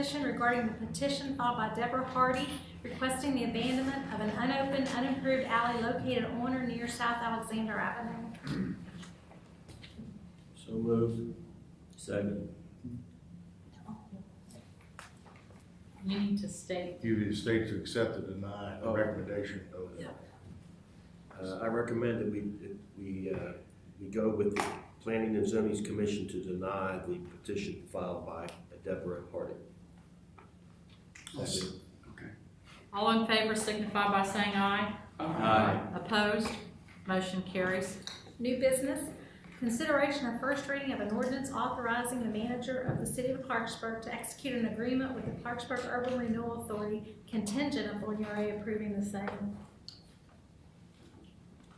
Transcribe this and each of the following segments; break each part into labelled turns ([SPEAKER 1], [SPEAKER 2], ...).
[SPEAKER 1] Petition regarding the petition filed by Deborah Hardy requesting the abandonment of an unopened, unimproved alley located on or near South Alexander Avenue.
[SPEAKER 2] So moved. Second.
[SPEAKER 3] You need to state,
[SPEAKER 4] You need to state to accept or deny the
[SPEAKER 2] Oh.
[SPEAKER 4] recommendation of.
[SPEAKER 3] Yeah.
[SPEAKER 2] Uh, I recommend that we, that we, uh, we go with the Planning and Zoning's Commission to deny the petition filed by Deborah Harding. Second.
[SPEAKER 3] all in favor signify by saying aye.
[SPEAKER 2] Aye.
[SPEAKER 3] Opposed? Motion carries.
[SPEAKER 1] New business, consideration of first reading of an ordinance authorizing the manager of the city of Clarksburg to execute an agreement with the Clarksburg Urban Renewal Authority contingent upon URA approving the same.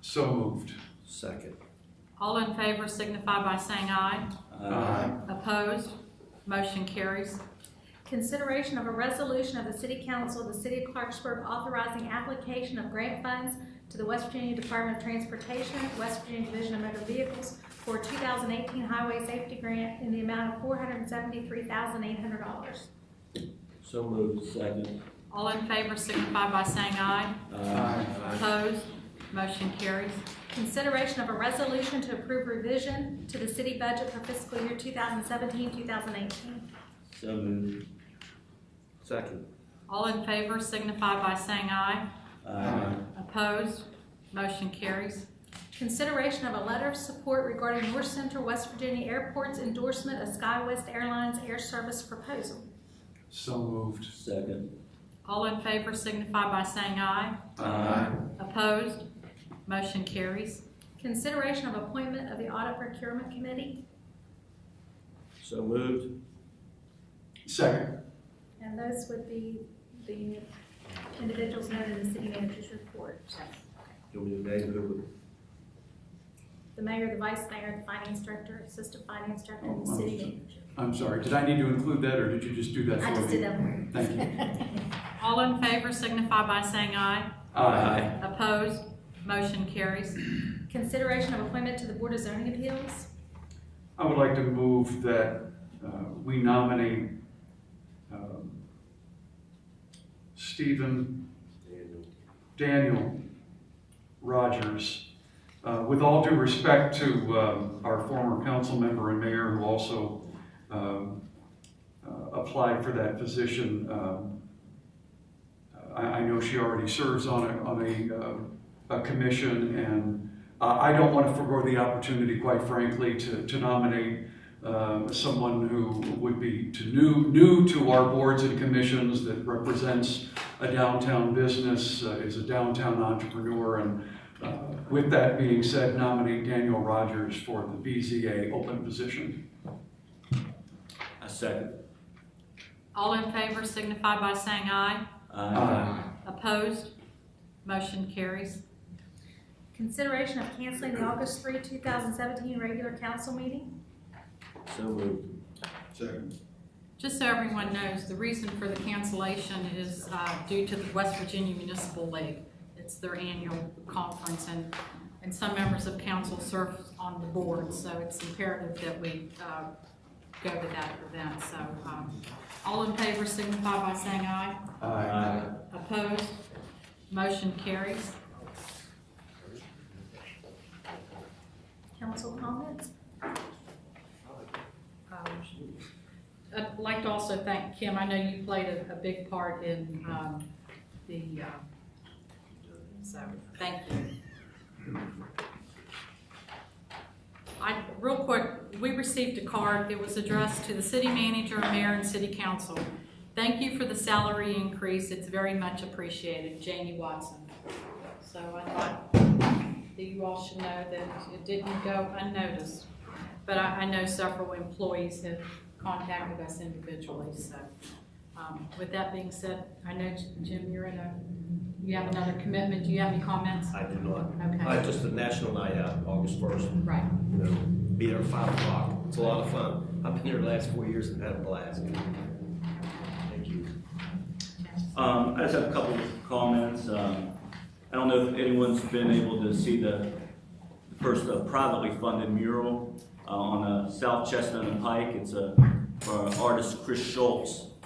[SPEAKER 5] So moved.
[SPEAKER 2] Second.
[SPEAKER 3] All in favor signify by saying aye.
[SPEAKER 5] Aye.
[SPEAKER 3] Opposed? Motion carries.
[SPEAKER 1] Consideration of a resolution of the city council of the city of Clarksburg authorizing application of grant funds to the West Virginia Department of Transportation, West Virginia Division of Motor Vehicles for two thousand eighteen highway safety grant in the amount of four hundred and seventy-three thousand eight hundred dollars.
[SPEAKER 2] So moved. Second.
[SPEAKER 3] All in favor signify by saying aye.
[SPEAKER 5] Aye.
[SPEAKER 3] Opposed? Motion carries.
[SPEAKER 1] Consideration of a resolution to approve revision to the city budget for fiscal year 2017, 2018.
[SPEAKER 2] So moved. Second.
[SPEAKER 3] All in favor signify by saying aye.
[SPEAKER 5] Aye.
[SPEAKER 3] Opposed? Motion carries.
[SPEAKER 1] Consideration of a letter of support regarding North Central West Virginia Airport's endorsement of SkyWest Airlines Air Service proposal.
[SPEAKER 5] So moved.
[SPEAKER 2] Second.
[SPEAKER 3] All in favor signify by saying aye.
[SPEAKER 5] Aye.
[SPEAKER 3] Opposed? Motion carries.
[SPEAKER 1] Consideration of appointment of the Audit Procurement Committee.
[SPEAKER 2] So moved.
[SPEAKER 5] Second.
[SPEAKER 1] And those would be the individuals noted in the city manager's report.
[SPEAKER 2] Do we name who?
[SPEAKER 1] The mayor, the vice mayor, the finance director, assistant finance director, and the
[SPEAKER 5] Oh,
[SPEAKER 1] city
[SPEAKER 5] understood.
[SPEAKER 1] manager.
[SPEAKER 5] I'm sorry, did I need to include that, or did you just do that for me?
[SPEAKER 1] I just did that one.
[SPEAKER 5] Thank you.
[SPEAKER 3] All in favor signify by saying aye.
[SPEAKER 5] Aye.
[SPEAKER 3] Opposed? Motion carries.
[SPEAKER 1] Consideration of appointment to the Board of Zoning Appeals.
[SPEAKER 5] I would like to move that uh, we nominate um, Stephen Daniel Rogers. Uh, With all due respect to um, our former council member and mayor who also um, uh, applied for that position, um, I, I know she already serves on a, on a, uh, a commission and Uh, I, I don't want to forego the opportunity, quite frankly, to, to nominate um, someone who would be to new, new to our boards and commissions that represents a downtown business, uh, is a downtown entrepreneur. And uh, with that being said, nominate Daniel Rogers for the BZA open position.
[SPEAKER 2] A second.
[SPEAKER 3] All in favor signify by saying aye.
[SPEAKER 5] Aye.
[SPEAKER 3] Opposed? Motion carries.
[SPEAKER 1] Consideration of canceling the August 3, 2017 regular council meeting.
[SPEAKER 2] So moved.
[SPEAKER 4] Second.
[SPEAKER 3] Just so everyone knows, the reason for the cancellation is uh, due to the West Virginia Municipal League. It's their annual conference, and, and some members of council serve on the board, so it's imperative that we uh, go to that event. So um, all in favor signify by saying aye. Opposed? Motion carries.
[SPEAKER 1] Council comments?
[SPEAKER 3] Um, I'd like to also thank Kim, I know you played a, a big part in, um, the, uh, so, thank you. I, real quick, we received a card, it was addressed to the city manager, mayor, and city council. Thank you for the salary increase, it's very much appreciated, Janie Watson. So I thought that you all should know that it didn't go unnoticed. But I, I know several employees have contacted us individually, so, um, with that being said, I know Jim, you're in a, you have another commitment, do you have any comments?
[SPEAKER 2] I do not. I
[SPEAKER 3] Okay,
[SPEAKER 2] just, the National Night Out, August first.
[SPEAKER 3] right,
[SPEAKER 2] you know, be there at five o'clock. It's a lot of fun. I've been there the last four years and had a blast. Thank you.
[SPEAKER 6] Um, I just have a couple of comments. Um, I don't know if anyone's been able to see the the first uh, privately funded mural uh, on uh, South Chestnut and Pike. It's a, for artist Chris Schultz.